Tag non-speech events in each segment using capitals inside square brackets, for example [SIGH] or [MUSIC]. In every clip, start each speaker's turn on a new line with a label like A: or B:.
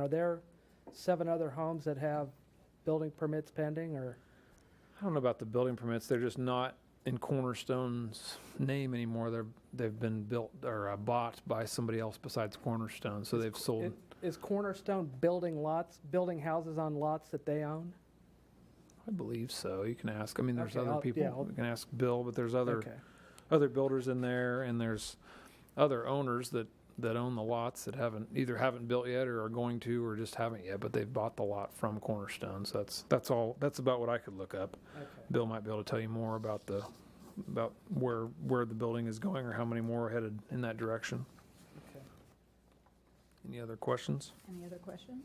A: Are there seven other homes that have building permits pending, or?
B: I don't know about the building permits. They're just not in Cornerstone's name anymore. They're, they've been built or uh, bought by somebody else besides Cornerstone, so they've sold.
A: Is Cornerstone building lots, building houses on lots that they own?
B: I believe so. You can ask. I mean, there's
A: Okay,
B: other
A: I'll-
B: people.
A: yeah, I'll-
B: You can ask Bill, but there's other,
A: Okay.
B: other builders in there and there's other owners that, that own the lots that haven't, either haven't built yet or are going to, or just haven't yet, but they've bought the lot from Cornerstone. So that's, that's all, that's about what I could look up.
A: Okay.
B: Bill might be able to tell you more about the, about where, where the building is going or how many more are headed in that direction.
A: Okay.
B: Any other questions?
C: Any other questions?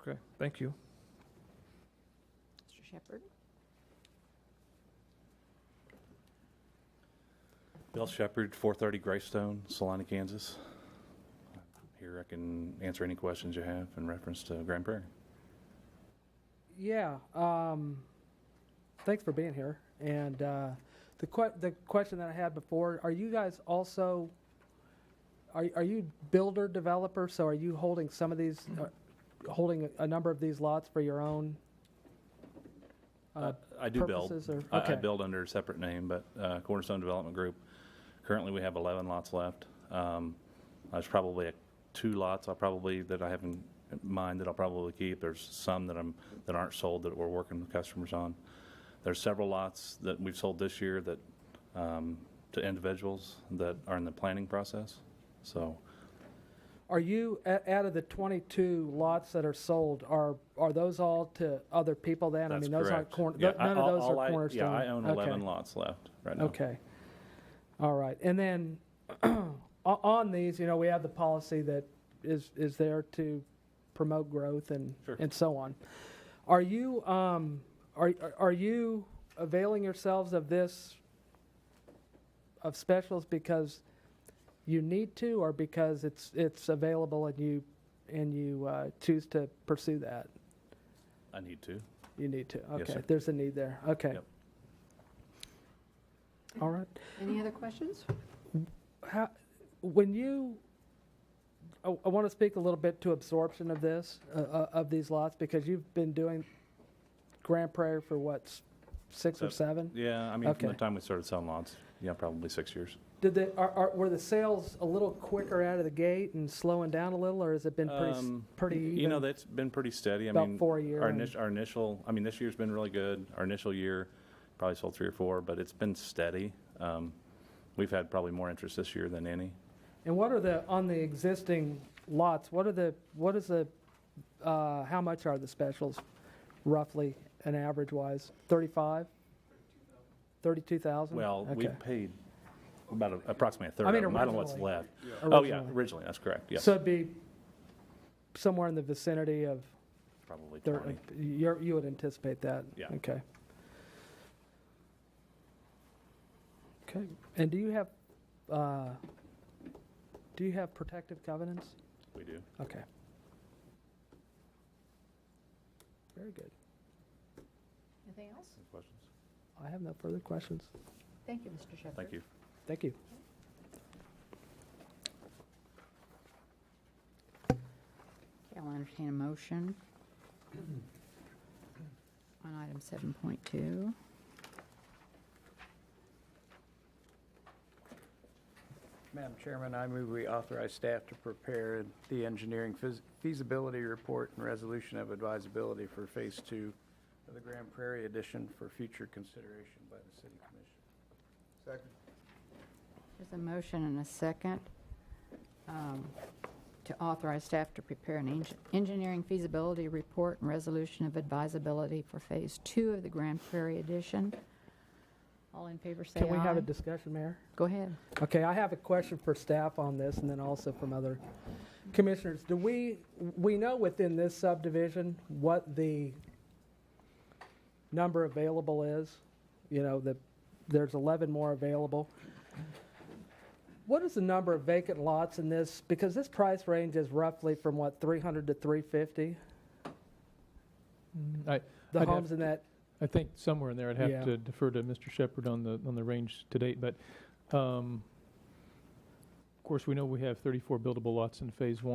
B: Okay, thank you.
C: Mr. Shepherd?
D: Bill Shepard, 430 Greystone, Salina, Kansas. Here I can answer any questions you have in reference to Grand Prairie.
A: Yeah, um, thanks for being here. And uh, the que- the question that I had before, are you guys also, are, are you builder developer? So are you holding some of these, uh, holding a- a number of these lots for your own? uh,
D: I do build.
A: purposes or-
D: I- I
A: okay.
D: build under a separate name, but uh, Cornerstone Development Group, currently we have 11 lots left. Um, There's probably a- two lots I probably, that I have in in mind that I'll probably keep. There's some that I'm, that aren't sold that we're working with customers on. There's several lots that we've sold this year that, um, to individuals that are in the planning process, so.
A: Are you, a- out of the 22 lots that are sold, are, are those all to other people then? I
D: That's
A: mean, those aren't
D: correct.
A: corner,
D: Yeah,
A: th- none of
D: all-
A: those
D: all I-
A: are cornerstone.
D: Yeah, I own
A: Okay.
D: 11 lots left right now.
A: Okay. All right. And then [CLEARS THROAT] o- on these, you know, we have the policy that is, is there to promote growth and,
D: Sure.
A: and so on. Are you, um, are, are you availing yourselves of this, of specials because you need to or because it's, it's available and you, and you uh, choose to pursue that?
D: I need to.
A: You need to.
D: Yes,
A: Okay.
D: sir.
A: There's a need there. Okay.
D: Yep.
A: All right.
C: Any other questions?
A: how, when you, I, I want to speak a little bit to absorption of this, uh, uh, of these lots, because you've been doing Grand Prairie for what, s- six or seven?
D: Yeah, I mean, from the
A: Okay.
D: time we started selling lots, yeah, probably six years.
A: Did they, are, are, were the sales a little quicker out of the gate and slowing down a little, or has it been pretty, s-
D: Um,
A: pretty
D: You know,
A: even?
D: that's been pretty steady. I
A: About
D: mean,
A: four a year
D: Our
A: and-
D: initial, our initial, I mean, this year's been really good. Our initial year, probably sold three or four, but it's been steady. Um, We've had probably more interest this year than any.
A: Mm-hmm. And what are the, on the existing lots, what are the, what is the, uh, how much are the specials roughly, an average wise? Thirty-five? Thirty-two thousand?
D: Well, we paid about a- approximately a third
A: I
D: of
A: mean,
D: them. I don't know what's
A: originally.
D: left. Oh, yeah, originally, that's correct, yes.
A: So it'd be somewhere in the vicinity of,
D: Probably
A: thir-
D: 20.
A: you're, you would anticipate that?
D: Yeah.
A: Okay. Okay, and do you have, uh, do you have protective covenants?
D: We do.
A: Okay. Very good.
C: Anything else?
D: Any questions?
A: I have no further questions.
C: Thank you, Mr. Shepherd.
D: Thank you.
A: Thank you.
C: Okay, I'll entertain a motion on item 7.2.
E: Madam Chairman, I move we authorize staff to prepare the engineering feas- feasibility report and resolution of advisability for Phase Two of the Grand Prairie addition for future consideration by the City Commission.
C: There's a motion and a second um, to authorize staff to prepare an eng- engineering feasibility report and resolution of advisability for Phase 2 of the Grand Prairie addition. All in favor, say aye.
A: Can we have a discussion, Mayor?
C: Go ahead.
A: Okay, I have a question for staff on this, and then also from other commissioners. Do we, we know within this subdivision what the number available is? You know, that there's 11 more available. What is the number of vacant lots in this? Because this price range is roughly from, what, 300 to 350?
F: Mm, I,
A: The
F: I'd have
A: homes in that,
F: I think somewhere in there, I'd have
A: Yeah.
F: to defer to Mr. Shepard on the on the range to date. But um, of course, we know we have 34 buildable lots in Phase One.